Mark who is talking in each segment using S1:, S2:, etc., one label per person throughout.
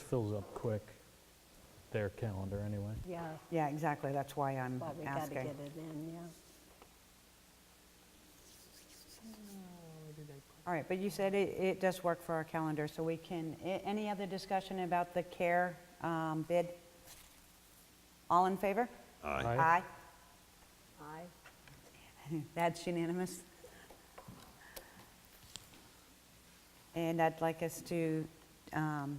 S1: fills up quick, their calendar anyway.
S2: yeah,
S3: Yeah, exactly, that's why I'm
S2: but we got to get
S3: asking.
S2: it in, yeah.
S3: All right, but you said it, it does work for our calendar, so we can, a- any other discussion about the care um, bid? All in favor?
S1: Aye.
S3: Aye.
S2: Aye.
S3: That's unanimous. And I'd like us to um,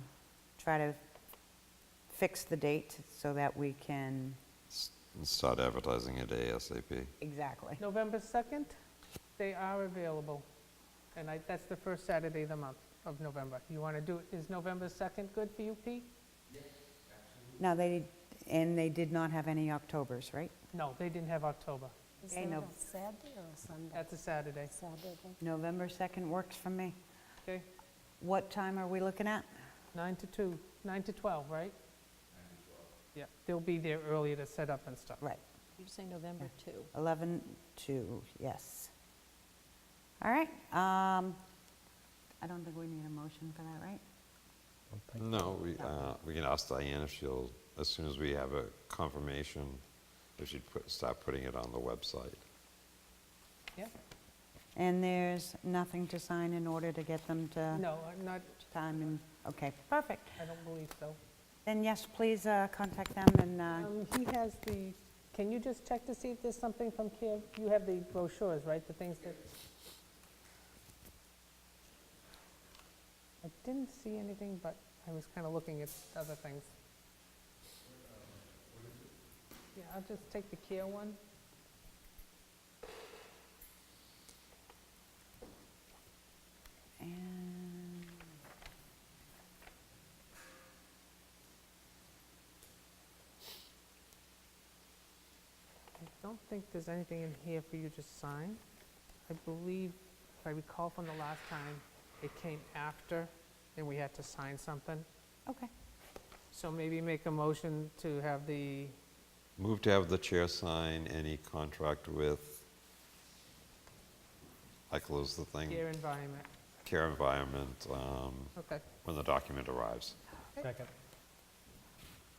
S3: try to fix the date so that we can,
S4: S- Start advertising it ASAP.
S3: exactly.
S5: November 2nd, they are available, and I, that's the first Saturday of the month of November. You want to do, is November 2nd good for you, Pete?
S3: Now, they, and they did not have any Octobers, right?
S5: No, they didn't have October.
S2: Is
S3: Okay,
S2: that
S3: no.
S2: a Saturday or a Sunday?
S5: That's a Saturday,
S2: Saturday.
S3: November 2nd works for me.
S5: okay?
S3: What time are we looking at?
S5: 9 to 2, 9 to 12, right? 9 to 12. Yeah, they'll be there earlier to set up and stuff.
S3: Right,
S2: You say November 2.
S3: 11 to, yes. All right, um, I don't think we need a motion for that, right?
S1: Don't think-
S4: No, we, uh, we can ask Diane if she'll, as soon as we have a confirmation, if she'd put, start putting it on the website.
S5: Yeah?
S3: And there's nothing to sign in order to get them to?
S5: No, I'm not,
S3: Time and, okay, perfect.
S5: I don't believe so.
S3: Then yes, please uh, contact them and, uh,
S5: Um, He has the, can you just check to see if there's something from Care? You have the brochures, right, the things that... I didn't see anything, but I was kind of looking at other things. Yeah, I'll just take the Care one.
S3: and...
S5: I don't think there's anything in here for you to sign. I believe, if I recall from the last time, it came after, and we had to sign something.
S3: okay.
S5: So maybe make a motion to have the
S4: Move to have the chair sign any contract with, I close the
S5: Care
S4: thing,
S5: environment.
S4: Care Environment, um,
S5: Okay.
S4: when the document arrives.
S1: Second.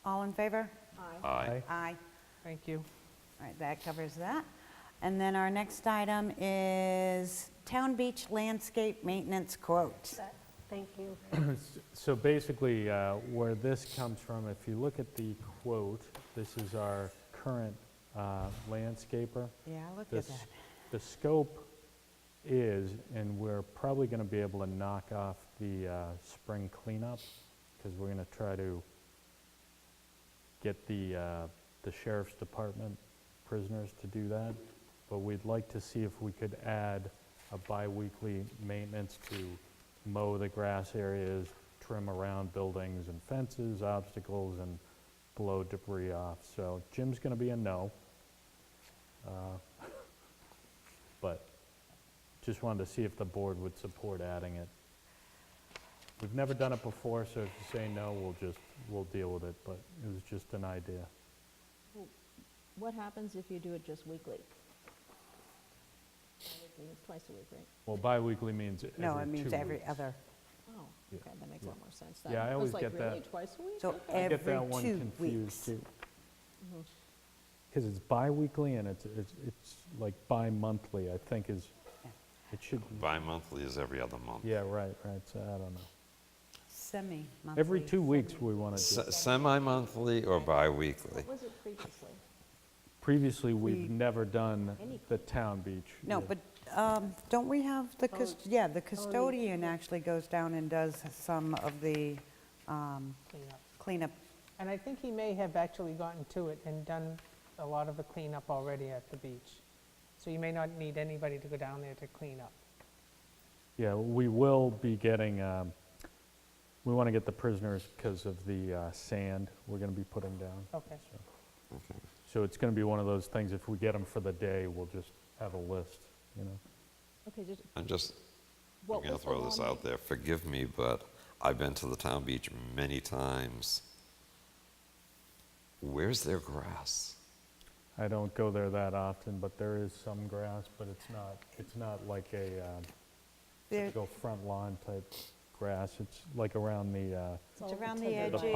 S3: All in favor?
S4: Aye.
S3: Aye.
S5: Thank you.
S3: All right, that covers that. And then our next item is Town Beach Landscape Maintenance Quote.
S2: That- Thank you.
S1: So basically, uh, where this comes from, if you look at the quote, this is our current uh, landscaper.
S3: Yeah, I looked
S1: The
S3: at
S1: s-
S3: that.
S1: The scope is, and we're probably going to be able to knock off the uh, spring cleanup, because we're going to try to get the, uh, the sheriff's department prisoners to do that, but we'd like to see if we could add a bi-weekly maintenance to mow the grass areas, trim around buildings and fences, obstacles, and blow debris off. So Jim's going to be a no. Uh, But just wanted to see if the board would support adding it. We've never done it before, so if you say no, we'll just, we'll deal with it, but it was just an idea.
S6: What happens if you do it just weekly? Means Twice a week, right?
S1: Well, bi-weekly means every two
S3: No, it means every
S1: weeks.
S3: other.
S6: Oh,
S1: Yeah,
S6: okay, that makes a lot more sense.
S1: Yeah, I always get
S6: It's like really
S1: that.
S6: twice a week?
S3: So
S6: Okay.
S1: I
S3: every
S1: get that one
S3: two
S1: confused
S3: weeks.
S1: too. Because it's bi-weekly and it's, it's, it's like bi-monthly, I think is, it should,
S4: Bi-monthly is every other month.
S1: yeah, right, right, so I don't know.
S3: Semi-monthly.
S1: Every two weeks we want to do.
S4: Se- Semi-monthly or bi-weekly?
S6: What was it previously?
S1: Previously,
S3: We-
S1: we've never done
S6: Any-
S1: the town beach.
S3: No,
S1: Yeah.
S3: but um, don't we have the, cus- yeah, the custodian
S6: yeah.
S3: actually goes down and does some of the um,
S5: Cleanup.
S3: cleanup.
S5: And I think he may have actually gotten to it and done a lot of the cleanup already at the beach. So you may not need anybody to go down there to clean up.
S1: Yeah, we will be getting, um, we want to get the prisoners because of the uh, sand we're going to be putting down.
S5: Okay.
S4: Okay.
S1: So it's going to be one of those things, if we get them for the day, we'll just have a list, you know?
S6: Okay, just,
S4: I'm just, I'm
S6: what
S4: going to
S6: was the
S4: throw this
S6: long-
S4: out there, forgive me, but I've been to the town beach many times. Where's their grass?
S1: I don't go there that often, but there is some grass, but it's not, it's not like a, um,
S3: There-
S1: typical front lawn type
S7: grass, it's like around the, uh,
S1: uh, It's around the edges.